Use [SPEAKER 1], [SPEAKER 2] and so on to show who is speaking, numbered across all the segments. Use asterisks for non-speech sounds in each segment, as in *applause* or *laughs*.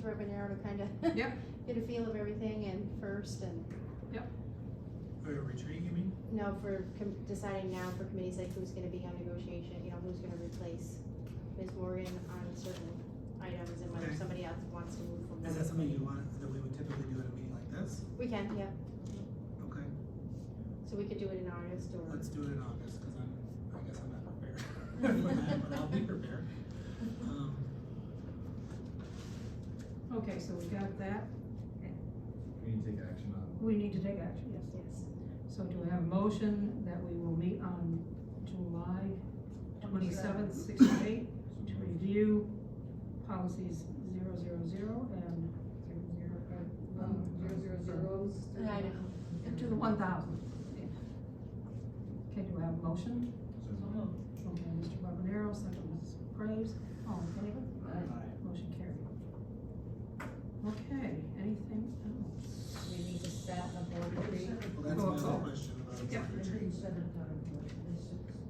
[SPEAKER 1] for an hour to *laughs* kind of
[SPEAKER 2] Yep.
[SPEAKER 1] get a feel of everything and first and,
[SPEAKER 3] For a retreat, you mean?
[SPEAKER 1] you know, for com- deciding now for committees like who's gonna be on negotiation, you know, who's gonna replace Ms. Morgan on certain items and whether
[SPEAKER 3] Okay.
[SPEAKER 1] somebody else wants to move from
[SPEAKER 3] Is that
[SPEAKER 1] there.
[SPEAKER 3] something you want, that we would typically do at a meeting like this?
[SPEAKER 1] We can, yeah,
[SPEAKER 3] Okay,
[SPEAKER 1] so we could do it in August or,
[SPEAKER 3] let's do it in August, cause I'm, I guess I'm not prepared *laughs* for that, but I'll be prepared. Um,
[SPEAKER 2] Okay, so we got that.
[SPEAKER 4] We need to take action on.
[SPEAKER 2] We need to take action, yes.
[SPEAKER 1] yes.
[SPEAKER 2] So do we have a motion that we will meet on July twenty-seventh, six to eight, to review policies zero zero zero and zero zero, uh, one, zero zero zeros.
[SPEAKER 1] I know.
[SPEAKER 2] And to the one thousand. Okay, do we have a motion? Okay, Mr. Webanero, second Mrs. Graves, all in favor? Motion carried. Okay, anything else?
[SPEAKER 5] We need to set a board retreat.
[SPEAKER 3] Well, that's my
[SPEAKER 2] Oh, oh.
[SPEAKER 3] other question about
[SPEAKER 2] Yeah.
[SPEAKER 3] the retreat.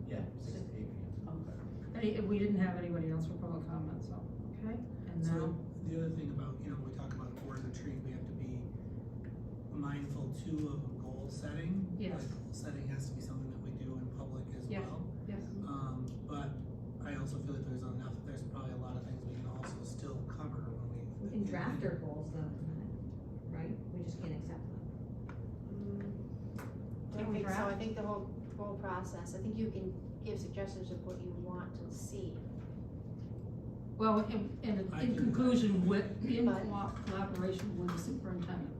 [SPEAKER 4] Yeah, six to eight
[SPEAKER 2] Any, we didn't have anybody else for public comment, so, okay, and now.
[SPEAKER 3] So, the other thing about, you know, when we talk about a board retreat, we have to be mindful too of goal setting.
[SPEAKER 2] Yes.
[SPEAKER 3] Like, goal setting has to be something that we do in public as
[SPEAKER 2] Yeah.
[SPEAKER 3] well.
[SPEAKER 2] Yes.
[SPEAKER 3] Um, but I also feel like there's enough, there's probably a lot of things we can also still cover when we.
[SPEAKER 5] We can draft our goals though, tonight, right? We just can't accept them.
[SPEAKER 1] Mm, I
[SPEAKER 2] Can
[SPEAKER 1] don't
[SPEAKER 2] we
[SPEAKER 1] think so, I
[SPEAKER 2] draft?
[SPEAKER 1] think the whole, whole process, I think you can give suggestions of what you want to see.
[SPEAKER 2] Well, in, in,
[SPEAKER 3] I
[SPEAKER 2] in
[SPEAKER 3] can-
[SPEAKER 2] conclusion with, in
[SPEAKER 1] But-
[SPEAKER 2] co- collaboration with the superintendent.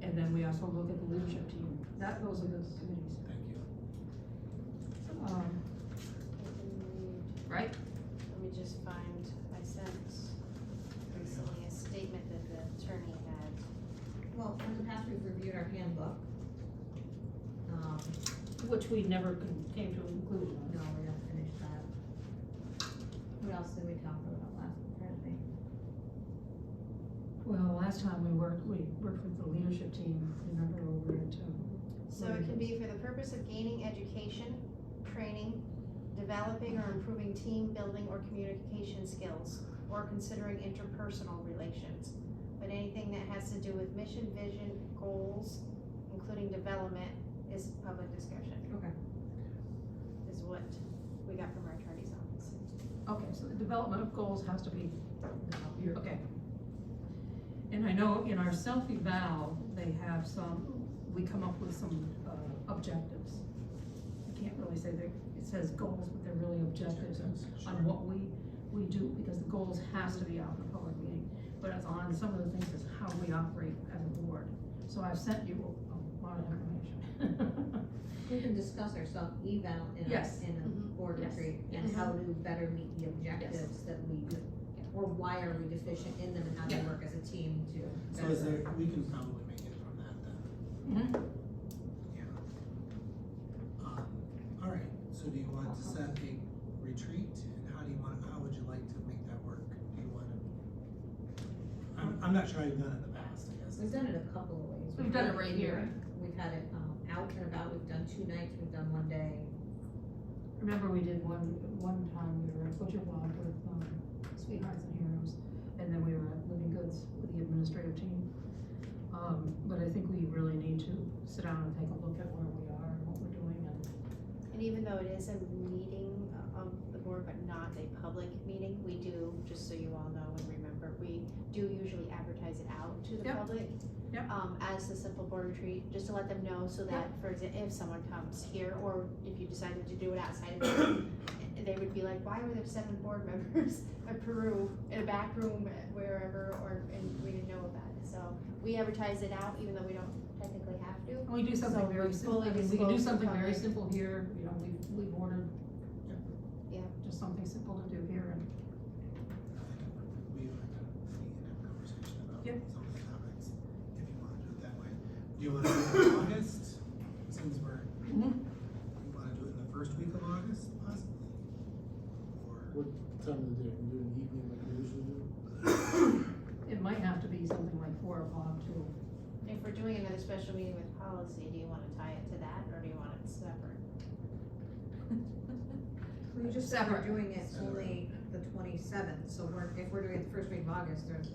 [SPEAKER 2] And then we also look at the leadership team, that, those are the committees,
[SPEAKER 3] Thank you.
[SPEAKER 2] um,
[SPEAKER 1] Let
[SPEAKER 2] right?
[SPEAKER 1] me just find, I sent recently a statement that the attorney had.
[SPEAKER 5] Well, in the past, we've reviewed our handbook. Um,
[SPEAKER 2] Which we never con- came to a conclusion on.
[SPEAKER 5] no, we don't finish that. What else did we talk about last Thursday?
[SPEAKER 2] Well, last time we worked, we worked with the leadership team, remember, over at, um,
[SPEAKER 1] So it can be for the purpose of gaining education, training, developing or improving team building or communication skills, or considering interpersonal relations. But anything that has to do with mission, vision, goals, including development, is public discussion.
[SPEAKER 5] Okay.
[SPEAKER 1] Is what we got from our attorney's office.
[SPEAKER 2] okay, so the development of goals has to be
[SPEAKER 5] No.
[SPEAKER 2] Okay. And I know in our self-eval, they have some, we come up with some uh, objectives. I can't really say that, it says goals, but they're really objectives on- on what we, we do, because the goals has to be out in a public meeting. But it's on some of the things is how we operate as a board. So I've sent you a lot of information.
[SPEAKER 5] We can discuss our self-eval in a,
[SPEAKER 2] Yes.
[SPEAKER 5] in a
[SPEAKER 1] Mhm.
[SPEAKER 5] board
[SPEAKER 2] Yes.
[SPEAKER 5] retreat and
[SPEAKER 2] Yes.
[SPEAKER 5] how to better meet the objectives that we, or why are we deficient in them and how
[SPEAKER 2] Yeah.
[SPEAKER 5] to work as a team to.
[SPEAKER 3] So is there, we can probably make it from that then,
[SPEAKER 2] Mhm.
[SPEAKER 3] yeah. Um, all right, so do you want to set a retreat, and how do you want, how would you like to make that work? Do you want to? I'm, I'm not sure I've done it in the past, I guess.
[SPEAKER 5] We've done it a couple of ways.
[SPEAKER 2] *laughs* We've done
[SPEAKER 5] had
[SPEAKER 2] it right here.
[SPEAKER 5] We've had it, um, out and about, we've done two nights, we've done one day.
[SPEAKER 2] Remember we did one, one time, we were at Butcher Block with, um, Sweethearts and Heroes, and then we were at Living Goods with the administrative team. Um, but I think we really need to sit down and take a look at where we are and what we're doing and.
[SPEAKER 1] And even though it is a meeting of the board, but not a public meeting, we do, just so you all know and remember, we do usually advertise it out to the
[SPEAKER 2] Yep.
[SPEAKER 1] public.
[SPEAKER 2] Yep.
[SPEAKER 1] Um, as the simple board retreat, just to let them know so that, for example, if someone comes here, or if you decided to do it outside of
[SPEAKER 2] *coughs*
[SPEAKER 1] here, they would be like, why were there seven board *laughs* members at Peru, in a back room, wherever, or, and we didn't know about it, so we advertise it out, even though we don't technically have to.
[SPEAKER 2] And we do something
[SPEAKER 1] So
[SPEAKER 2] very
[SPEAKER 1] we're
[SPEAKER 2] simple, I
[SPEAKER 1] fully
[SPEAKER 2] mean, we can do
[SPEAKER 1] disclosed to
[SPEAKER 2] something very
[SPEAKER 1] public.
[SPEAKER 2] simple here, you know, we've, we've ordered.
[SPEAKER 1] Yeah.
[SPEAKER 2] Just something simple to do here and,
[SPEAKER 3] We are gonna meet and have a conversation about
[SPEAKER 2] Yep.
[SPEAKER 3] some of the topics, if you wanna do it that way. Do you wanna do it in August, since we're,
[SPEAKER 2] Mhm.
[SPEAKER 3] you wanna do it in the first week of August possibly? Or,
[SPEAKER 6] What time of the day, we do it in the evening like we usually do?
[SPEAKER 2] it might have to be something like four o'clock too.
[SPEAKER 1] If we're doing another special meeting with policy, do you wanna tie it to that, or do you want it separate?
[SPEAKER 5] We just
[SPEAKER 2] Separate.
[SPEAKER 5] are doing it
[SPEAKER 3] Separate.
[SPEAKER 5] only the twenty-seventh, so we're, if we're doing it the first week of August, there's,